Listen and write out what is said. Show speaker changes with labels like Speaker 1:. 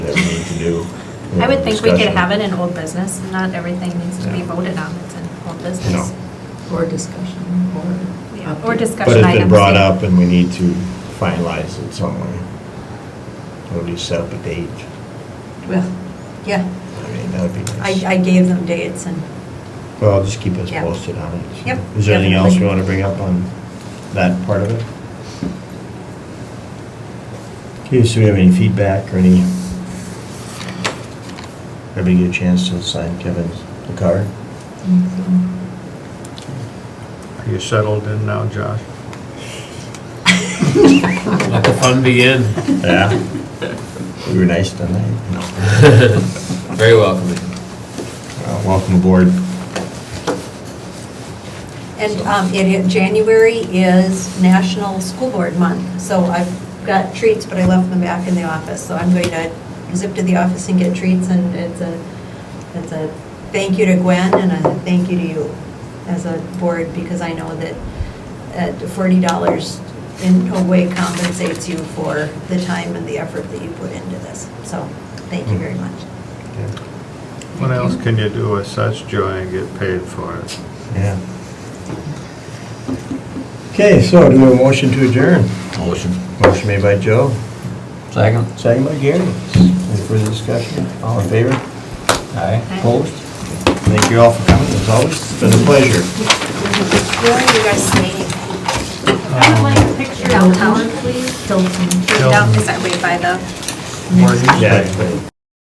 Speaker 1: do.
Speaker 2: I would think we could
Speaker 1: Discussion.
Speaker 2: have it in old business, not everything needs to be
Speaker 1: Yeah.
Speaker 2: voted on, it's in old
Speaker 1: No.
Speaker 2: business.
Speaker 3: Or discussion, or.
Speaker 2: Yeah, Or
Speaker 1: But
Speaker 2: discussion
Speaker 1: it's been
Speaker 2: items.
Speaker 1: brought
Speaker 2: yeah.
Speaker 1: up and we need to finalize it somewhere. Or we set up a date.
Speaker 3: Well,
Speaker 1: I
Speaker 3: yeah,
Speaker 1: mean, that'd be
Speaker 3: I,
Speaker 1: nice.
Speaker 3: I gave them dates and,
Speaker 1: Well, just keep us
Speaker 3: Yeah.
Speaker 1: posted on it. so.
Speaker 3: Yep,
Speaker 1: Is there anything else you
Speaker 3: definitely.
Speaker 1: want to bring up on that part of it? Okay, so we have any feedback or any? Everybody get a chance to sign Kevin's the card?
Speaker 4: Are you settled in now, Josh?
Speaker 5: Let the fun begin.
Speaker 1: Yeah. We were nice tonight. No.
Speaker 5: Very welcoming.
Speaker 1: Uh, Welcome aboard.
Speaker 3: and, um, it, it- January is National School Board Month, so I've got treats, but I left them back in the office, so I'm going to zip to the office and get treats, and it's a, it's a thank you to Gwen and a thank you to you as a board, because I know that at forty dollars in no way compensates you for the time and the effort that you put into this, so, thank you very much.
Speaker 4: What else can you do with such joy and get paid for it?
Speaker 1: Yeah. Okay, so do we have a motion to adjourn? Motion. Motion made by Joe,
Speaker 5: Second.
Speaker 1: second by Gary. Any further discussion? All in favor? Aye. Opposed? Thank you all for coming, as always. It's been a pleasure.
Speaker 2: I would like a picture downtown, please. Downtown, is that way by the?
Speaker 4: More you say.
Speaker 1: Yeah, it's been-